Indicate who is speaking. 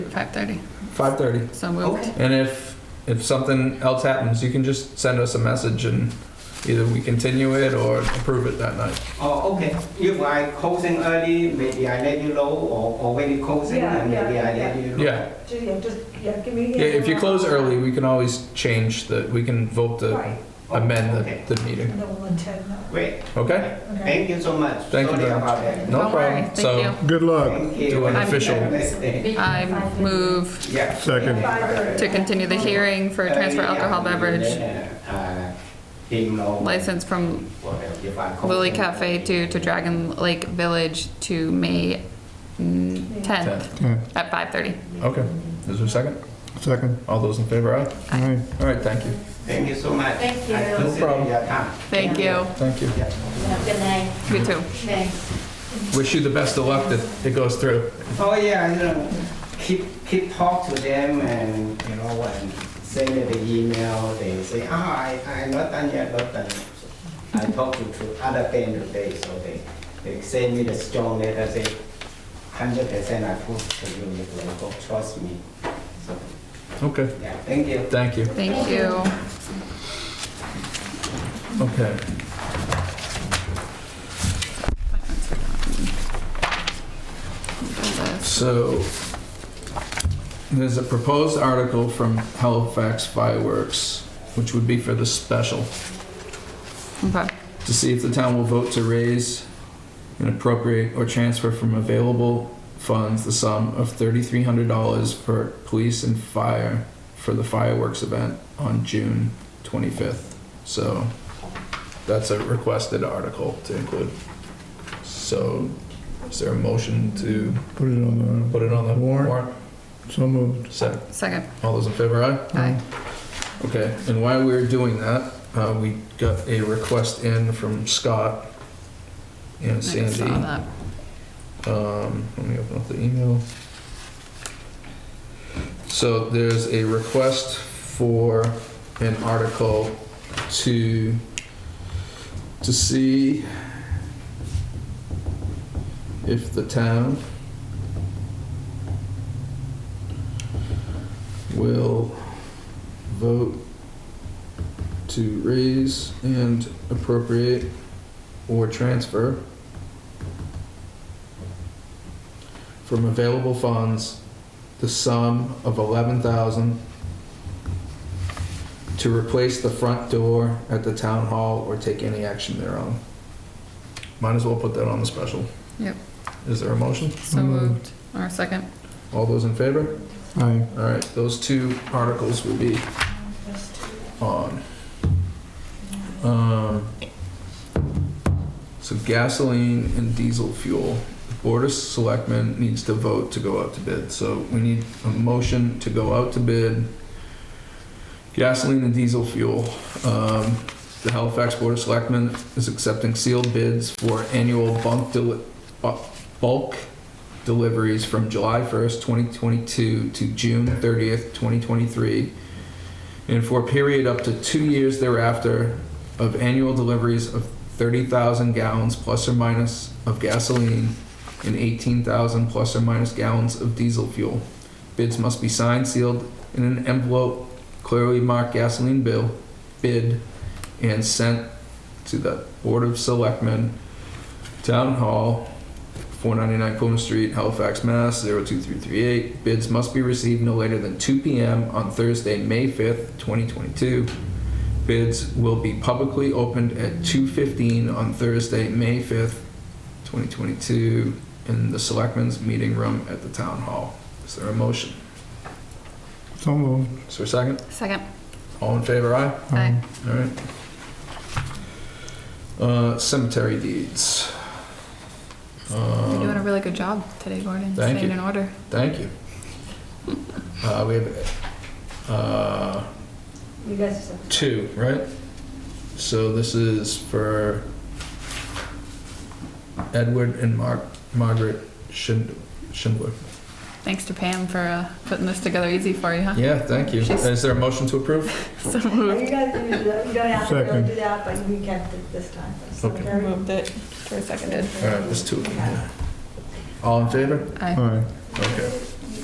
Speaker 1: 5:30.
Speaker 2: 5:30.
Speaker 1: So moved.
Speaker 3: Okay.
Speaker 2: And if if something else happens, you can just send us a message and either we continue it or approve it that night.
Speaker 3: Oh, okay. If I closing early, maybe I let you know, or already closing,
Speaker 4: Yeah,
Speaker 3: and maybe
Speaker 4: yeah,
Speaker 3: I let you know.
Speaker 2: Yeah.
Speaker 4: Ju- Yeah, just, yeah, give me.
Speaker 2: Yeah, if you close early, we can always change the we can vote to
Speaker 4: Right,
Speaker 3: Oh,
Speaker 2: amend
Speaker 3: Okay,
Speaker 2: the, the meeting.
Speaker 4: no one intend that,
Speaker 3: great.
Speaker 2: Okay?
Speaker 4: okay?
Speaker 3: Thank you so much.
Speaker 2: Thank you
Speaker 3: Sorry
Speaker 2: very
Speaker 3: about that.
Speaker 2: No
Speaker 1: Don't worry.
Speaker 2: problem.
Speaker 1: Thank
Speaker 2: So
Speaker 1: you.
Speaker 5: Good luck.
Speaker 3: Thank you.
Speaker 2: Do an
Speaker 3: Have a
Speaker 2: official-
Speaker 3: nice day.
Speaker 1: I move
Speaker 3: Yeah. Uh,
Speaker 5: Second.
Speaker 1: to continue the hearing for a transfer alcohol beverage license from Lily Cafe to, to Dragon Lake Village to May mm, 10th
Speaker 5: Yeah,
Speaker 1: at 5:30.
Speaker 2: Okay. Is there a second?
Speaker 5: Second.
Speaker 2: All those in favor, aye?
Speaker 5: Aye.
Speaker 2: All right, thank you.
Speaker 3: Thank you so much.
Speaker 6: Thank you.
Speaker 3: I
Speaker 6: No
Speaker 3: appreciate
Speaker 2: problem.
Speaker 3: your time.
Speaker 1: Thank you.
Speaker 2: Thank you.
Speaker 3: Yeah.
Speaker 6: Have a good night.
Speaker 1: You too.
Speaker 6: Thanks.
Speaker 2: Wish you the best of luck that it goes through.
Speaker 3: Oh yeah, you know, keep keep talk to them and you know and send me the email. They say, ah, I I not done yet, not done. yet." So I talked to, to other band today, so they they send me the strong letter say, hundred percent I prove to you, you will go trust me. So
Speaker 2: Okay.
Speaker 3: yeah, thank you.
Speaker 2: Thank you.
Speaker 1: Thank you.
Speaker 2: Okay. So there's a proposed article from Halifax Fireworks, which would be for the special,
Speaker 1: Okay.
Speaker 2: to see if the town will vote to raise and appropriate or transfer from available funds the sum of thirty-three hundred dollars for police and fire for the fireworks event on June twenty-fifth. So that's a requested article to include. So is there a motion to
Speaker 5: Put it on
Speaker 2: put it on the
Speaker 5: Warrant.
Speaker 2: warrant?
Speaker 5: the, so moved.
Speaker 2: Second.
Speaker 1: Second.
Speaker 2: All those in favor, aye?
Speaker 1: Aye.
Speaker 2: Okay, and while we were doing that, uh, we got a request in from Scott and
Speaker 1: I saw
Speaker 2: Sandy.
Speaker 1: that.
Speaker 2: Um, let me open up the email. So there's a request for an article to, to see if the town will vote to raise and appropriate or transfer from available funds the sum of eleven thousand to replace the front door at the town hall or take any action thereon. Might as well put that on the special.
Speaker 1: Yep.
Speaker 2: Is there a motion?
Speaker 1: So moved. Or second.
Speaker 2: All those in favor?
Speaker 5: Aye.
Speaker 2: All right, those two articles will be on. Um, So gasoline and diesel fuel, the Board of Selectmen needs to vote to go out to bid. So we need a motion to go out to bid, gasoline and diesel fuel. Um, The Halifax Board of Selectmen is accepting sealed bids for annual bunk deli- bu- bulk deliveries from July 1st, 2022 to June 30th, 2023 and for a period up to two years thereafter of annual deliveries of 30,000 gallons plus or minus of gasoline and 18,000 plus or minus gallons of diesel fuel. Bids must be signed, sealed in an envelope, clearly marked gasoline bill, bid, and sent to the Board of Selectmen, Town Hall, 499 Plymouth Street, Halifax, Mass. 02338. Bids must be received no later than 2 p.m. on Thursday, May 5th, 2022. Bids will be publicly opened at 2:15 on Thursday, May 5th, 2022, in the Selectmen's Meeting Room at the Town Hall. Is there a motion?
Speaker 5: So moved.
Speaker 2: Is there a second?
Speaker 1: Second.
Speaker 2: All in favor, aye?
Speaker 1: Aye.
Speaker 2: All right. Uh, Cemetery deeds.
Speaker 1: You're
Speaker 2: Um,
Speaker 1: doing a really good job today, Gordon.
Speaker 2: Thank
Speaker 1: Staying
Speaker 2: you.
Speaker 1: in order.
Speaker 2: Thank you. Uh, we have, uh,
Speaker 4: You guys are so.
Speaker 2: two, right? So this is for Edward and Mar- Margaret Schind- Schindler.
Speaker 1: Thanks to Pam for uh, putting this together easy for you, huh?
Speaker 2: Yeah, thank you.
Speaker 1: She's-
Speaker 2: Is there a motion to approve?
Speaker 1: So
Speaker 4: You
Speaker 1: moved.
Speaker 4: guys, do that. you don't have to really
Speaker 5: Second.
Speaker 4: do that, but we kept it this time. so
Speaker 2: Okay.
Speaker 4: very-
Speaker 1: Moved it. For seconded.
Speaker 2: All right, there's two of them. All in favor?
Speaker 1: Aye.
Speaker 5: Aye.
Speaker 2: Okay.